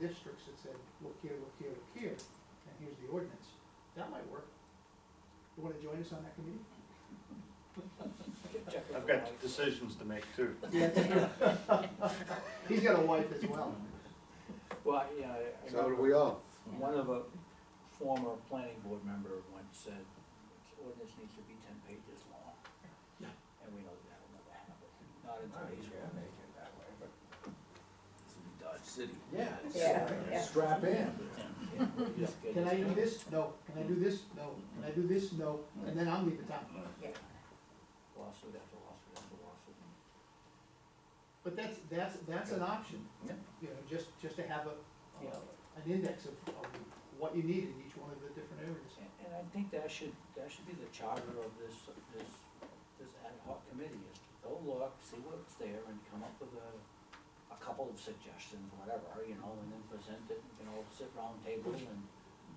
districts that said, look here, look here, look here, and here's the ordinance. That might work. You wanna join us on that committee? I've got decisions to make too. Yeah. He's got a wife as well. Well, yeah, I- I So do remember we all. one of a former planning board member once said, "This ordinance needs to be ten pages long. And we know that will never happen, not in today's world. This will be Dodge City. Yeah. Yeah, yeah. Strap in. Yeah, yeah, you just get Can I this do done. this? No. Can I do this? No. Can I do this? No. And then I'll leave the town. Lawsuit after lawsuit after lawsuit. But that's, that's, that's an option. Yeah. You know, just, just to have a, Yeah. an index of, of what you need in each one of the different areas. And, and I think that should, that should be the charter of this, this, this ad hoc committee, is to go look, see what's there, and come up with a, a couple of suggestions, whatever, you know, and then present it, you know, sit round table and,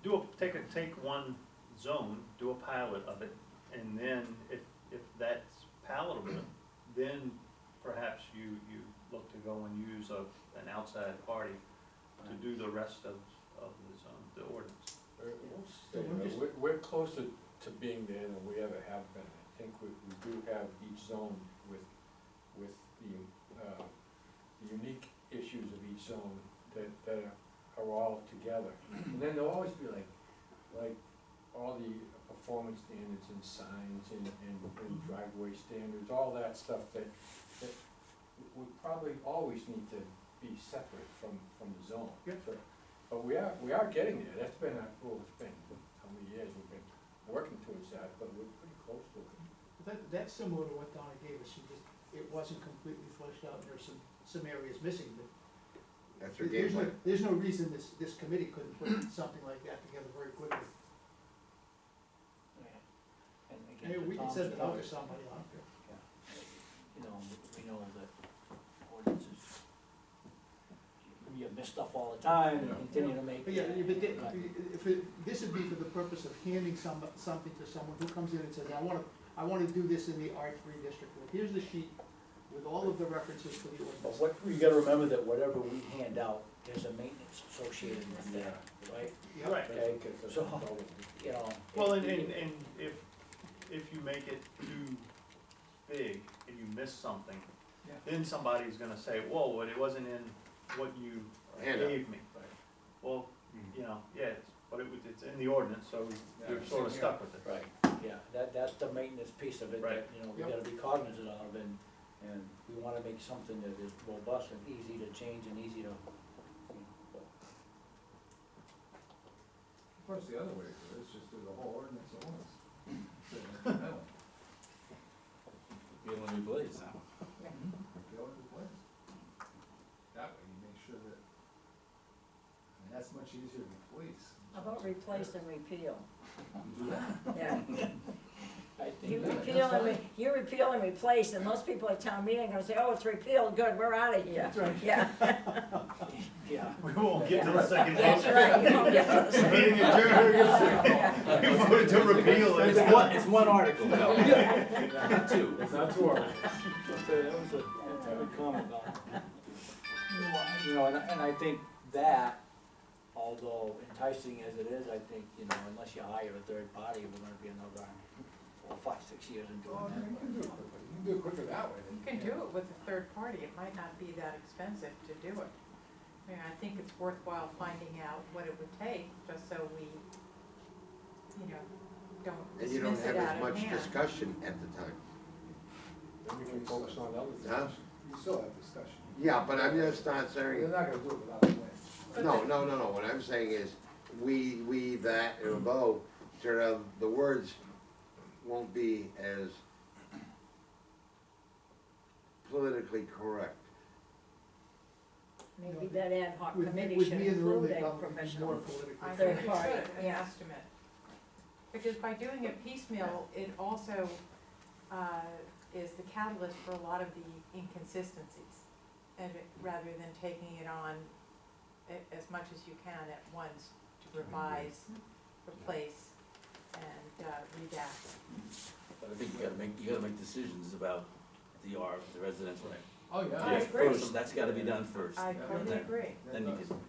Do a, take a, take one zone, do a pilot of it, and then if, if that's palatable, then perhaps you, you look to go and use a, an outside party to do the rest of, of the zone, the ordinance. We're- we'll stay we're there. just- We're, we're closer to being there than we ever have been. I think we, we do have each zone with, with the, uh, the unique issues of each zone that, that are- are all together. And then there'll always be like, like all the performance standards and signs and, and and driveway standards, all that stuff that, that would probably always need to be separate from, from the zone. Yep. But- But we are, we are getting there, that's been, a- well, it's been, how many years we've been working towards that, but we're pretty close to it. That, that's similar to what Donna gave us. She just, it wasn't completely fleshed out. There's some, some areas missing, but That's your game there's no, plan. there's no reason this, this committee couldn't put something like that together very quickly. and again, Maybe to we can Tom's send it out point, to somebody, huh? you know, we- we know that ordinances, you miss stuff all the time, and continue to make. But yeah, you- but Right. thi- if, it- this would be for the purpose of handing some, something to someone who comes in and says, I wanna, I wanna do this in the R three district. Well, Here's the sheet with all of the references to the But ordinance. what, you gotta remember that whatever we hand out, there's a maintenance associated with that, right? Yeah. Right. I think it's a- So- You know. Well, and, and, and if, if you make it too big and you miss something, Yeah. then somebody's gonna say, whoa, but it wasn't in what you Handout. gave me. Right. Well, you know, yeah, it's- but it was, it's in the ordinance, so you're sort of stuck with it. Right, yeah, that, that's the maintenance piece of it, Right. that, you know, we Yep. gotta be cognizant of, and, and we wanna make something that is robust and easy to change and easy to. Of course, the other way to do it is just do the whole ordinance at once. Sit in the middle, Be able to blaze go to the place. That way you make sure that, I mean, that's much easier than police. How about replace and repeal? You do that. Yeah. I You think, Yeah, repeal and, that's re- you repeal and replace, and most people at town meeting are gonna say, oh, it's repealed, good, we're out of here. That's right. Yeah, yeah, We won't get to the second that's vote. right. You won't get to the second Meeting adjourned. We voted to repeal it. It's one, it's one article, no, not two. It's not too hard. that was a, that's a good comment about it. You know, and, and I think that, although enticing as it is, I think, you know, unless you hire a third party, we're gonna be another, four, five, six years in doing Well, I that. mean, you can do it quicker, you can do it quicker that way. than You can do it with a third party, it might not be that expensive to do it. I mean, I think it's worthwhile finding out what it would take, just so we, you know, don't And you don't dismiss have it as out of much hand. discussion at the time, Then we can focus on other things. huh? You still have discussion. Yeah, but I'm just not You're saying, not gonna do it without a plan. no, no, no, no, what I'm saying is, we, we, that, and bo, sort of, the words won't be as politically correct. Maybe that ad hoc With me, committee with should me in the room, include it a probably would be more professional. I politically. think Third we should, party, an yeah. estimate. Because by doing it piecemeal, it also, uh, is the catalyst for a lot of the inconsistencies. And it- rather than taking it on a- as much as you can at once to revise, replace, and, uh, redact. But I think you gotta make, you gotta make decisions about the R, the residential. Oh, I yeah. agree. First, that's gotta be done first. I and totally then- agree. Then you can,